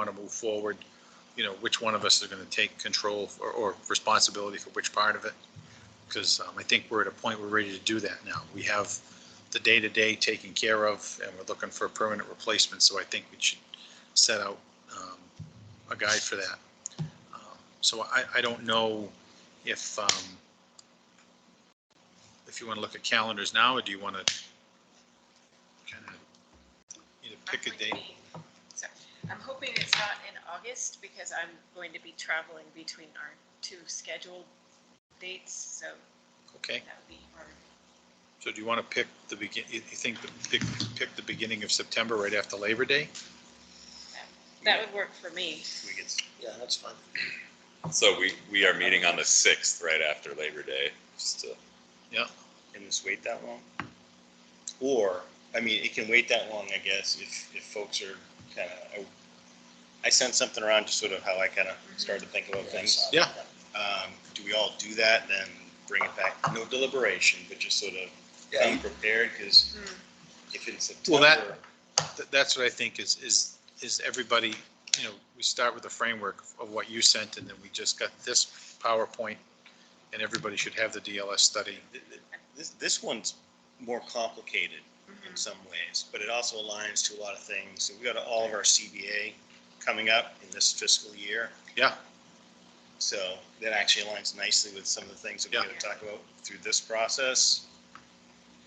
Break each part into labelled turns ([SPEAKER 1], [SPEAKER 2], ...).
[SPEAKER 1] want to move forward, you know, which one of us is going to take control or, or responsibility for which part of it. Because I think we're at a point, we're ready to do that now. We have the day-to-day taken care of, and we're looking for a permanent replacement, so I think we should set out um, a guide for that. Um, So I, I don't know if, um, if you want to look at calendars now, or do you want to kind of either pick a date?
[SPEAKER 2] Sorry. I'm hoping it's not in August because I'm going to be traveling between our two scheduled dates, so
[SPEAKER 1] Okay,
[SPEAKER 2] that would be hard.
[SPEAKER 1] so do you want to pick the begin, you you think, the- pick, pick the beginning of September right after Labor Day?
[SPEAKER 2] That would work for me.
[SPEAKER 1] Mm-hmm.
[SPEAKER 3] We could,
[SPEAKER 4] Yeah, that's fine.
[SPEAKER 5] So we, we are meeting on the sixth, right after Labor Day, just to,
[SPEAKER 3] can this wait that long? Or, I mean, it can wait that long, I guess, if, if folks are kind of, I sent something around just sort of how I kind of started to think about things.
[SPEAKER 1] Yeah.
[SPEAKER 3] Um, do we all do that, then bring it back, no deliberation, but just sort of
[SPEAKER 4] Yeah,
[SPEAKER 3] come prepared, because
[SPEAKER 2] Hmm.
[SPEAKER 3] if it's
[SPEAKER 1] Well, that-
[SPEAKER 3] September,
[SPEAKER 1] Th- That's what I think is, is, is everybody, you know, we start with the framework of what you sent, and then we just got this PowerPoint, and everybody should have the DLS study.
[SPEAKER 3] th- th- this, this one's more complicated
[SPEAKER 2] Mm.
[SPEAKER 3] in
[SPEAKER 2] Mm-hmm.
[SPEAKER 3] some ways, but it also aligns to a lot of things. So We got all of our CBA coming up in this fiscal year.
[SPEAKER 1] Yeah.
[SPEAKER 3] So that actually aligns nicely with some of the things that we're
[SPEAKER 2] Yeah.
[SPEAKER 3] gonna talk about through this process.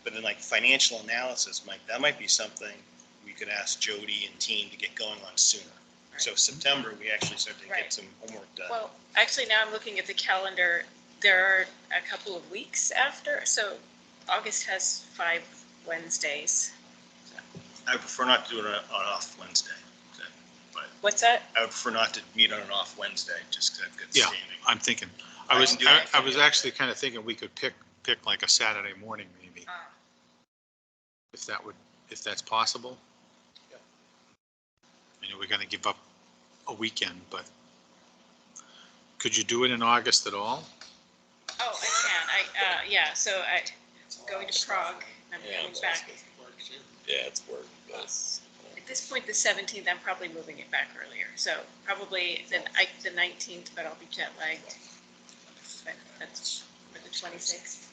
[SPEAKER 3] But then like financial analysis, Mike, that might be something we could ask Jody and team to get going on sooner. So September, we actually start to
[SPEAKER 2] Right.
[SPEAKER 3] get some homework done.
[SPEAKER 2] Well, actually, now I'm looking at the calendar. There are a couple of weeks after, so August has five Wednesdays.
[SPEAKER 3] I prefer not to do it on, on off Wednesday.
[SPEAKER 2] What's that?
[SPEAKER 3] I would prefer not to meet on an off Wednesday, just because I've got
[SPEAKER 1] Yeah.
[SPEAKER 3] standing.
[SPEAKER 1] I'm thinking, I was,
[SPEAKER 3] I can do
[SPEAKER 1] I
[SPEAKER 3] that.
[SPEAKER 1] I was actually kind of thinking we could pick, pick like a Saturday morning, maybe,
[SPEAKER 2] Uh,
[SPEAKER 1] if that would, if that's possible.
[SPEAKER 4] Yeah.
[SPEAKER 1] You know, we're gonna give up a weekend, but could you do it in August at all?
[SPEAKER 2] Oh, I can. I, uh, yeah, so I, going to Prague, I'm
[SPEAKER 5] Yeah,
[SPEAKER 2] coming back.
[SPEAKER 5] yeah, it's work, but
[SPEAKER 2] At this point, the seventeenth, I'm probably moving it back earlier, so probably the, I, the nineteenth, but I'll be jet lagged. But that's for the twenty-sixth.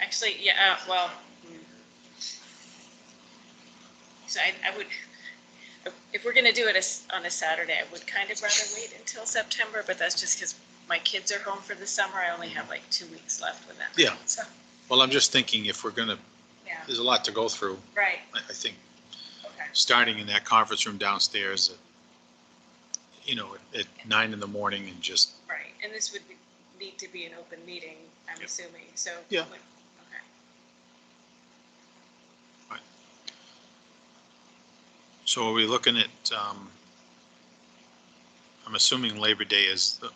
[SPEAKER 2] Actually, yeah, uh, well. hmm. So I, I would, if we're gonna do it as- on a Saturday, I would kind of rather wait until September, but that's just because my kids are home for the summer. I only have like two weeks left with them.
[SPEAKER 1] Yeah.
[SPEAKER 2] So,
[SPEAKER 1] Well, I'm just thinking if we're gonna,
[SPEAKER 2] yeah,
[SPEAKER 1] there's a lot to go through,
[SPEAKER 2] right,
[SPEAKER 1] I, I think,
[SPEAKER 2] okay.
[SPEAKER 1] starting in that conference room downstairs at, you know, at nine in the morning and just,
[SPEAKER 2] Right, and this would be- need to be an open meeting, I'm
[SPEAKER 1] Yep.
[SPEAKER 2] assuming, so.
[SPEAKER 1] Yeah.
[SPEAKER 2] like, Okay.
[SPEAKER 1] so are we looking at, um, I'm assuming Labor Day is the,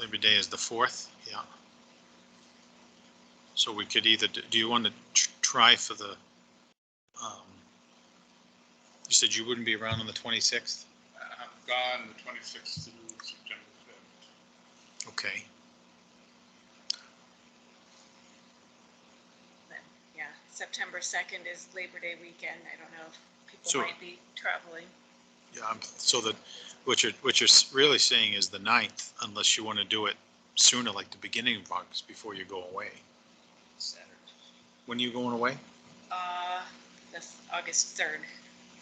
[SPEAKER 1] Labor Day is the fourth, yeah. So we could either, do do you want to try for the, um, you said you wouldn't be around on the twenty-sixth?
[SPEAKER 6] I'm gone the twenty-sixth through September fifth.
[SPEAKER 1] Okay,
[SPEAKER 2] Then, Yeah, September 2nd is Labor Day weekend, I don't know if people
[SPEAKER 1] So-
[SPEAKER 2] might be traveling.
[SPEAKER 1] yeah, I'm- so that, what you're, what you're s- really saying is the ninth, unless you want to do it sooner, like the beginning of August, before you go away.
[SPEAKER 3] Saturday.
[SPEAKER 1] When are you going away?
[SPEAKER 2] Uh, that's August 3rd.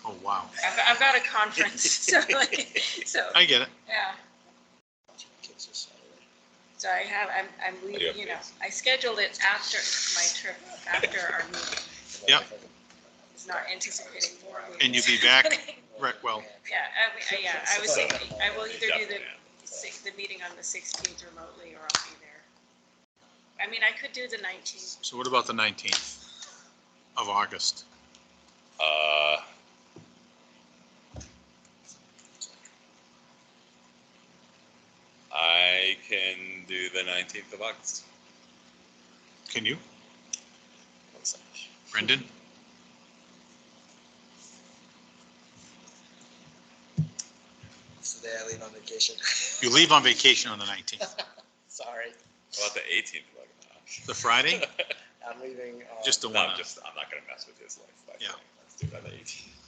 [SPEAKER 1] Oh, wow.
[SPEAKER 2] I've, I've got a conference, so like, so,
[SPEAKER 1] I get it.
[SPEAKER 2] yeah. So I have, I'm, I'm leaving, you know, I scheduled it after my trip, after our meeting.
[SPEAKER 1] Yeah.
[SPEAKER 2] It's not anticipating more.
[SPEAKER 1] And you'll be
[SPEAKER 2] meetings
[SPEAKER 1] back?
[SPEAKER 2] happening.
[SPEAKER 1] Right, well,
[SPEAKER 2] Yeah, I, I- yeah, I was thinking, I will either do the six, the meeting on the sixteenth remotely, or I'll be there. I mean, I could do the nineteenth,
[SPEAKER 1] so what about the nineteenth of August?
[SPEAKER 5] uh, I can do the nineteenth of August.
[SPEAKER 1] Can you,
[SPEAKER 5] One second.
[SPEAKER 1] Brendan?
[SPEAKER 4] It's the day I leave on vacation.
[SPEAKER 1] You leave on vacation on the nineteenth,
[SPEAKER 4] Sorry,
[SPEAKER 5] How About the eighteenth of August.
[SPEAKER 1] the Friday,
[SPEAKER 4] I'm leaving. um,
[SPEAKER 1] just the
[SPEAKER 5] No,
[SPEAKER 1] one.
[SPEAKER 5] I'm just, I'm not gonna mess with his life. I
[SPEAKER 1] Yeah.
[SPEAKER 5] think. do it on the eighteenth.